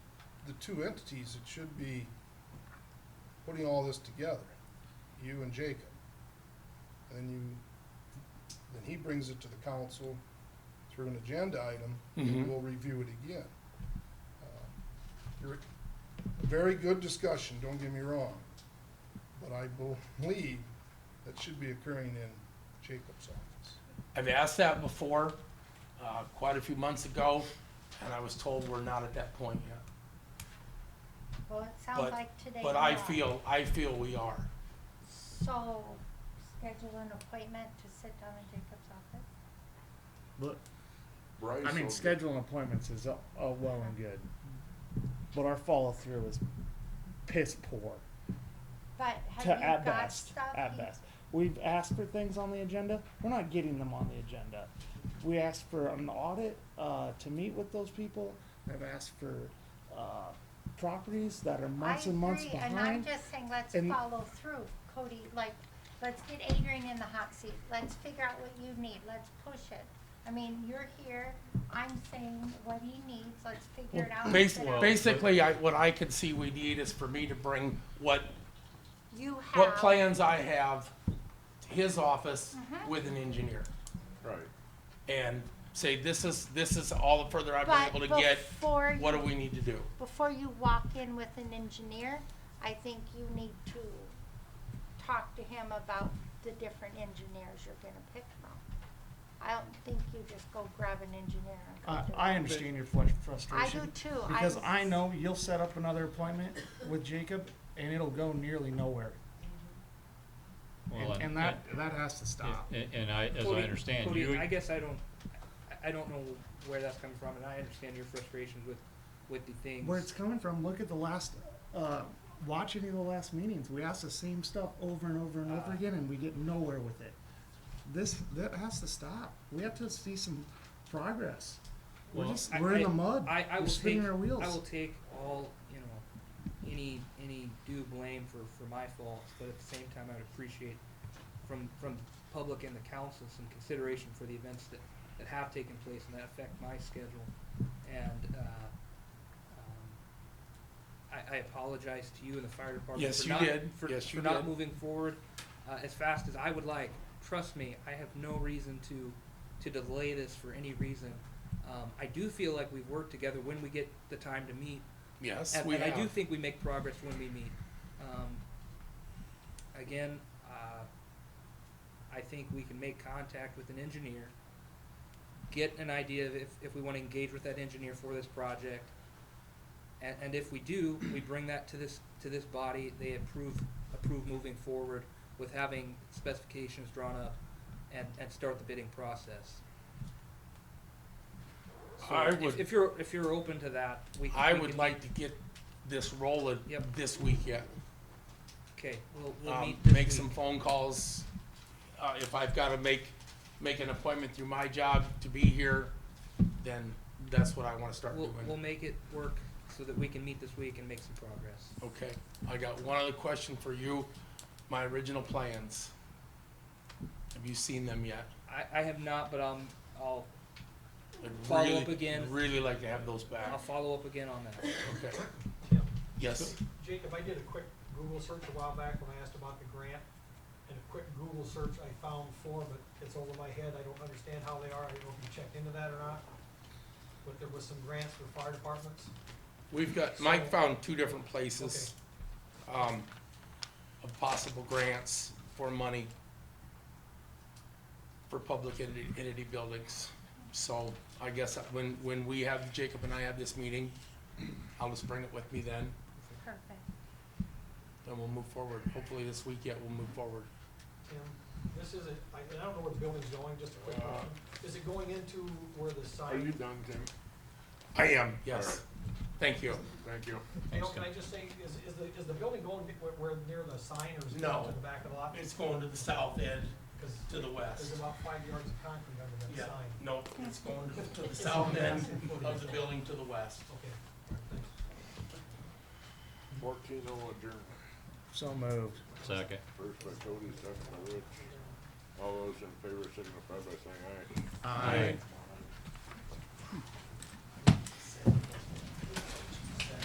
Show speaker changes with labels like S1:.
S1: the two entities that should be putting all this together, you and Jacob. And then you, then he brings it to the council through an agenda item, and
S2: Mhm.
S1: we'll review it again. Uh, You're, a very good discussion, don't get me wrong, but I believe that should be occurring in Jacob's office.
S2: I've asked that before, uh, quite a few months ago, and I was told we're not at that point yet.
S3: Well, it sounds
S2: But-
S3: like today.
S2: But I
S3: you are.
S2: feel, I feel we are.
S3: So, schedule an appointment to sit down in Jacob's office?
S4: But,
S5: Bryce.
S4: I mean,
S5: will-
S4: scheduling appointments is all, all well and good, but our follow through is piss poor.
S3: But have
S4: To
S3: you
S4: at
S3: got
S4: best,
S3: stuff?
S4: at
S3: you-
S4: best, we've asked for things on the agenda. We're not getting them on the agenda. We asked for an audit uh, to meet with those people. I've asked for uh, properties that are months and months
S3: I agree, and I'm
S4: behind.
S3: just saying, let's
S4: and-
S3: follow through, Cody, like, let's get Adrian in the hot seat, let's figure out what you need, let's push it. I mean, you're here, I'm saying what he needs, let's figure it out. and
S2: Bas-
S3: sit down.
S2: Basically, I, what I could see we need is for me to bring what,
S3: You
S2: what
S3: have,
S2: plans I have to his office
S3: Mm-hmm.
S2: with an engineer.
S5: Right.
S2: And say, this is, this is all the further I've
S3: but
S2: been able to get,
S3: before
S2: what do
S3: you
S2: we need to do?
S3: before you walk in with an engineer, I think you need to talk to him about the different engineers you're gonna pick from. I don't think you just go grab an engineer and go
S4: I,
S3: do it.
S4: I understand your flush-
S3: I
S4: frustration.
S3: do too.
S4: Because
S3: I'm-
S4: I know you'll set up another appointment with Jacob and it'll go nearly nowhere.
S6: Well,
S4: And, and that, that uh, has to stop.
S6: and- And I, as I
S7: Cody-
S6: understand,
S7: Cody,
S6: you,
S7: I guess I don't, I- I don't know where that's coming from, and I understand your frustrations with, with the things.
S4: Where it's coming from, look at the last, uh, watch any of the last meetings. We ask the same stuff over and over and over
S7: Ah.
S4: again and we get nowhere with it. This, that has to stop. We have to see some progress. We're
S6: Well,
S4: just,
S7: I-
S4: we're in the
S7: I-
S4: mud.
S7: I, I
S4: We're
S7: will
S4: spinning
S7: take,
S4: our wheels.
S7: I will take all, you know, any, any due blame for, for my faults, but at the same time, I would appreciate from, from the public and the council some consideration for the events that, that have taken place and that affect my schedule. And, uh, um, I, I apologize to you and the fire department.
S2: Yes,
S7: for
S2: you
S7: not-
S2: did.
S7: For,
S2: Yes,
S7: for
S2: you
S7: not
S2: did.
S7: moving forward, uh, as fast as I would like. Trust me, I have no reason to, to delay this for any reason. Um, I do feel like we've worked together when we get the time to meet,
S2: Yes,
S7: and,
S2: we
S7: and I do
S2: have.
S7: think we make progress when we meet. Um, again, uh, I think we can make contact with an engineer, get an idea of if, if we want to engage with that engineer for this project, and, and if we do, we bring that to this to this body. They approve approve moving forward with having specifications drawn up, and, and start the bidding process. So
S2: I
S7: if-
S2: would-
S7: if you're if you're open to that, we can,
S2: I
S7: we
S2: would
S7: can-
S2: like to get this rolling
S7: Yep.
S2: this week yet.
S7: Okay, we'll, we'll
S2: um,
S7: meet this
S2: make some
S7: week.
S2: phone calls. Uh, if I've gotta make, make an appointment through my job to be here, then that's what I wanna start
S7: We'll, we'll
S2: doing.
S7: make it work so that we can meet this week and make some progress.
S2: Okay, I got one other question for you, my original plans. Have you seen them yet?
S7: I, I have not, but um, I'll
S2: I'd
S7: Follow
S2: really-
S7: up again.
S2: Really like to have those
S7: I'll
S2: back,
S7: follow up again on that.
S2: okay,
S8: Yeah.
S2: yes,
S8: Jacob, I did a quick Google search a while back when I asked about the grant, and a quick Google search I found four, but it's over my head, I don't understand how they are, I don't know if you checked into that or not. But there was some grants for fire departments,
S2: we've got, Mike found two different places, um, of possible grants for money for public entity, entity buildings. So I guess that when, when we have, Jacob and I have this meeting, I'll just bring it with me then,
S3: Perfect.
S2: and we'll move forward. Hopefully this week yet, we'll move forward.
S8: Tim, this isn't, I, and I don't know where the building's going, just a quick
S5: Uh,
S8: question, is it going into where the
S5: Are
S8: sign?
S5: you done, Tim?
S2: I am, yes. Thank you.
S5: Thank you.
S8: You know, can I just say, is, is the, is the building going to- where, where near the sign, or is it
S2: No.
S8: going to the back of the lot?
S2: going to the south end,
S8: Because
S2: the
S8: there's about five yards of concrete under that sign.
S2: no, it's going to the
S8: south end of the
S2: building to the west.
S8: Okay, all right, thanks.
S5: Fourteen oh adjourned.
S4: So moved.
S6: second.
S5: First by Cody, second by Rich. All those in favor signify by saying aye.
S6: Aye.